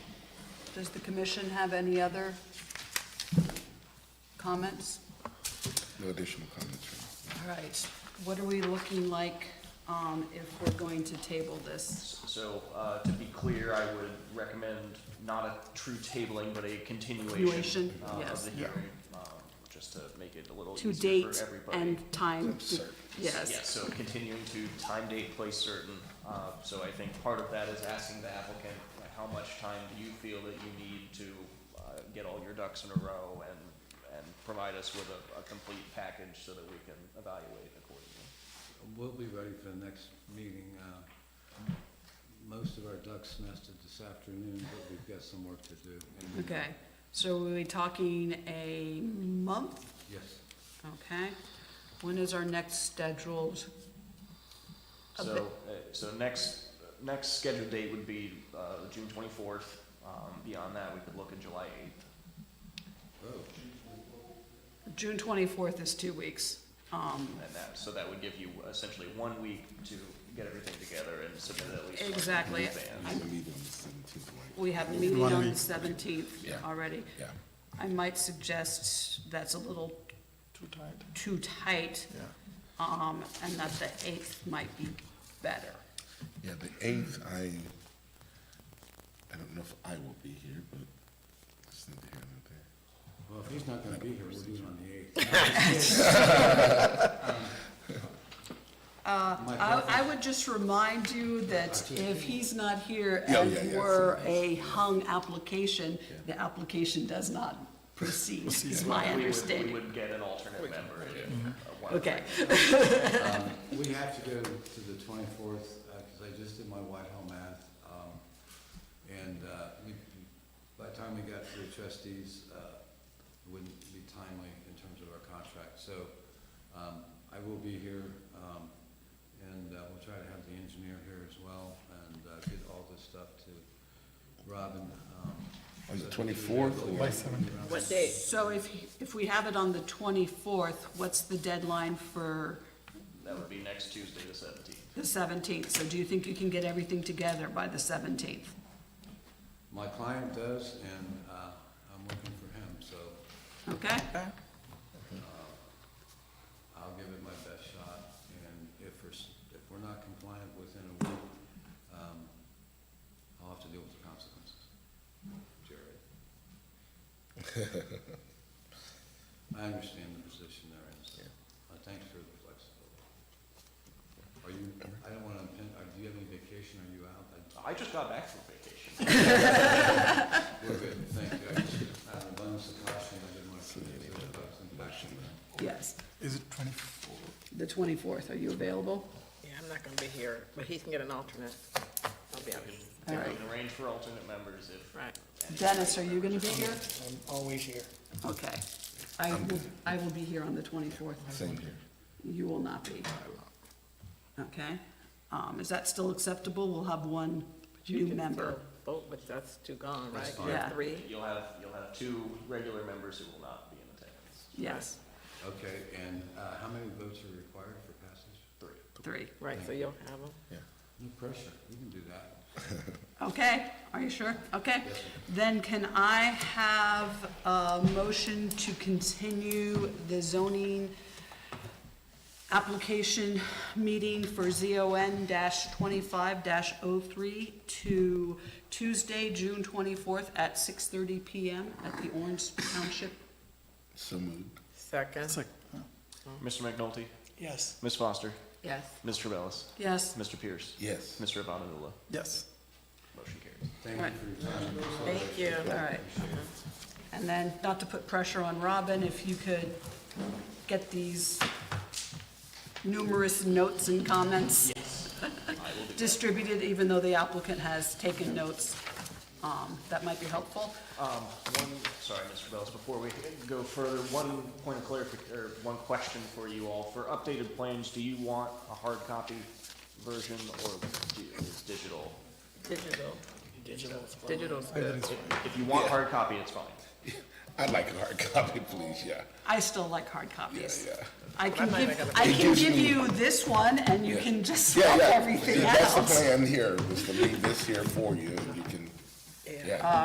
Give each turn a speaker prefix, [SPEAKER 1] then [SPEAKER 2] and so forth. [SPEAKER 1] Does the commission have any other comments?
[SPEAKER 2] No additional comments.
[SPEAKER 1] All right, what are we looking like um, if we're going to table this?
[SPEAKER 3] So, uh, to be clear, I would recommend not a true tabling, but a continuation
[SPEAKER 1] Continuation,
[SPEAKER 3] uh, of
[SPEAKER 1] yes.
[SPEAKER 3] the hearing, um, just to make it a little
[SPEAKER 1] To
[SPEAKER 3] easier
[SPEAKER 1] date
[SPEAKER 3] for everybody.
[SPEAKER 1] and time?
[SPEAKER 2] Lip service.
[SPEAKER 1] Yes.
[SPEAKER 3] Yeah, so continuing to time, date, place certain. Uh, So I think part of that is asking the applicant, like, how much time do you feel that you need to uh, get all your ducks in a row and, and provide us with a, a complete package so that we can evaluate accordingly?
[SPEAKER 4] We'll be ready for the next meeting. Uh, Most of our ducks nested this afternoon, but we've got some work to do. And-
[SPEAKER 1] Okay, so we are we talking a month?
[SPEAKER 4] Yes.
[SPEAKER 1] Okay. When is our next scheduled? A
[SPEAKER 3] So, uh, so next, next scheduled date would be uh, June twenty-fourth. um, Beyond that, we could look at July eighth.
[SPEAKER 4] Oh,
[SPEAKER 1] June twenty-fourth is two weeks. Um,
[SPEAKER 3] And that, so that would give you essentially one week to get everything together and submit at least. one
[SPEAKER 1] Exactly.
[SPEAKER 3] in advance.
[SPEAKER 2] We have a
[SPEAKER 1] We have
[SPEAKER 2] meeting on the seventeenth, right?
[SPEAKER 1] a meeting
[SPEAKER 2] One
[SPEAKER 1] on the
[SPEAKER 2] week.
[SPEAKER 1] seventeenth
[SPEAKER 2] Yeah.
[SPEAKER 1] already.
[SPEAKER 2] Yeah.
[SPEAKER 1] I might suggest that's a little
[SPEAKER 2] Too tight.
[SPEAKER 1] too tight,
[SPEAKER 2] Yeah,
[SPEAKER 1] um, and that the eighth might be better.
[SPEAKER 2] yeah, the eighth, I, I don't know if I will be here, but it's not here, not there.
[SPEAKER 4] Well, if he's not gonna be here, we'll do it on the eighth.
[SPEAKER 1] I,
[SPEAKER 4] My
[SPEAKER 1] I
[SPEAKER 4] preference-
[SPEAKER 1] would just remind you that if he's not here
[SPEAKER 2] Yeah, yeah,
[SPEAKER 1] and
[SPEAKER 2] yeah.
[SPEAKER 1] were a hung application, the application does not proceed, is my
[SPEAKER 3] We would- We
[SPEAKER 1] understanding. Mm-hmm.
[SPEAKER 3] would get an alternate member. if, uh, one-
[SPEAKER 1] Okay,
[SPEAKER 4] We have to go to the twenty-fourth, because I just did my Whitehall math. um, And uh, we- by the time we got to the trustees, uh, it wouldn't be timely in terms of our contract. So um, I will be here, um, and uh, we'll try to have the engineer here as well, and uh, get all this stuff to Robin. um,
[SPEAKER 2] On the
[SPEAKER 4] so that we
[SPEAKER 2] 24th
[SPEAKER 4] really
[SPEAKER 2] or-
[SPEAKER 4] get
[SPEAKER 2] By
[SPEAKER 4] it around.
[SPEAKER 1] so if, if we have it on the twenty-fourth, what's the deadline for
[SPEAKER 3] That would be next Tuesday, the seventeenth.
[SPEAKER 1] the seventeenth? So do you think you can get everything together by the seventeenth?
[SPEAKER 4] My client does, and uh, I'm working for him, so
[SPEAKER 1] Okay?
[SPEAKER 4] I'll give it my best shot, and if we're, s- if we're not compliant within a week, um, I'll have to deal with the consequences. Jared. I understand the position they're in, so, uh, thanks for the flexibility. Are you, I don't wanna, impin- uh, do you have any vacation, are you out? I-
[SPEAKER 3] I just got back from vacation.
[SPEAKER 4] We're good, thank you, I just, out of abundance of caution, I didn't wanna commit to the bugs and
[SPEAKER 1] Yes,
[SPEAKER 5] Is it twenty-four?
[SPEAKER 1] the twenty-fourth, are you available?
[SPEAKER 6] Yeah, I'm not gonna be here, but he can get an alternate. I'll be out.
[SPEAKER 1] All
[SPEAKER 3] We
[SPEAKER 1] right.
[SPEAKER 3] can arrange for alternate members if.
[SPEAKER 6] Right.
[SPEAKER 1] Dennis, are you gonna be here?
[SPEAKER 5] I'm always here.
[SPEAKER 1] Okay. I will, I will be here on the twenty-fourth.
[SPEAKER 2] Same here.
[SPEAKER 1] You will not be. Okay, um, is that still acceptable? We'll have one new member.
[SPEAKER 6] Vote, but that's two gone, right?
[SPEAKER 4] fine.
[SPEAKER 6] You have
[SPEAKER 1] Yeah.
[SPEAKER 6] Three,
[SPEAKER 3] You'll have, you'll have two regular members who will not be in attendance.
[SPEAKER 1] Yes,
[SPEAKER 4] Okay, and, uh, how many votes are required for passage?
[SPEAKER 3] Three.
[SPEAKER 1] three.
[SPEAKER 6] right, so you'll have them.
[SPEAKER 4] No pressure, you can do that.
[SPEAKER 1] Okay, are you sure? Okay. Then can I have a motion to continue the zoning application meeting for ZON twenty-five 3 to Tuesday, June twenty-fourth at six thirty PM at the Orange Township?
[SPEAKER 2] So moved.
[SPEAKER 5] It's
[SPEAKER 6] Second,
[SPEAKER 5] like, oh,
[SPEAKER 1] Mm-hmm.
[SPEAKER 3] Mr. McNulty,
[SPEAKER 5] yes,
[SPEAKER 3] Ms. Foster,
[SPEAKER 6] yes.
[SPEAKER 3] Ms. Trevellus,
[SPEAKER 1] Yes,
[SPEAKER 3] Mr. Pierce,
[SPEAKER 2] Yes.
[SPEAKER 3] Mr. Avonadilla.
[SPEAKER 5] yes.
[SPEAKER 3] Motion carries.
[SPEAKER 4] Thank you for your time.
[SPEAKER 6] Thank you.
[SPEAKER 1] all right. And then, not to put pressure on Robin, if you could get these numerous notes and comments distributed, even though the applicant has taken notes, um, that might be helpful.
[SPEAKER 3] Um, one, sorry, Mr. Bellis, before we go further, one point of clarification, or one question for you all. For updated plans, do you want a hard copy version or do you- it's digital?
[SPEAKER 6] Digital. Digital's good.
[SPEAKER 3] If you want hard copy, it's fine.
[SPEAKER 2] I'd like a hard copy, please, yeah.
[SPEAKER 1] I still like hard copies.
[SPEAKER 2] Yeah, yeah.
[SPEAKER 1] I can
[SPEAKER 6] might make
[SPEAKER 1] give,
[SPEAKER 6] it-
[SPEAKER 1] I
[SPEAKER 2] It
[SPEAKER 1] can
[SPEAKER 2] gives
[SPEAKER 1] give
[SPEAKER 2] me-
[SPEAKER 1] you this one, and you
[SPEAKER 2] Yeah.
[SPEAKER 1] can just
[SPEAKER 2] Yeah,
[SPEAKER 1] swap
[SPEAKER 2] yeah.
[SPEAKER 1] everything
[SPEAKER 2] That's the
[SPEAKER 1] out.
[SPEAKER 2] plan here, was to leave this here for you, and you can, yeah. Uh,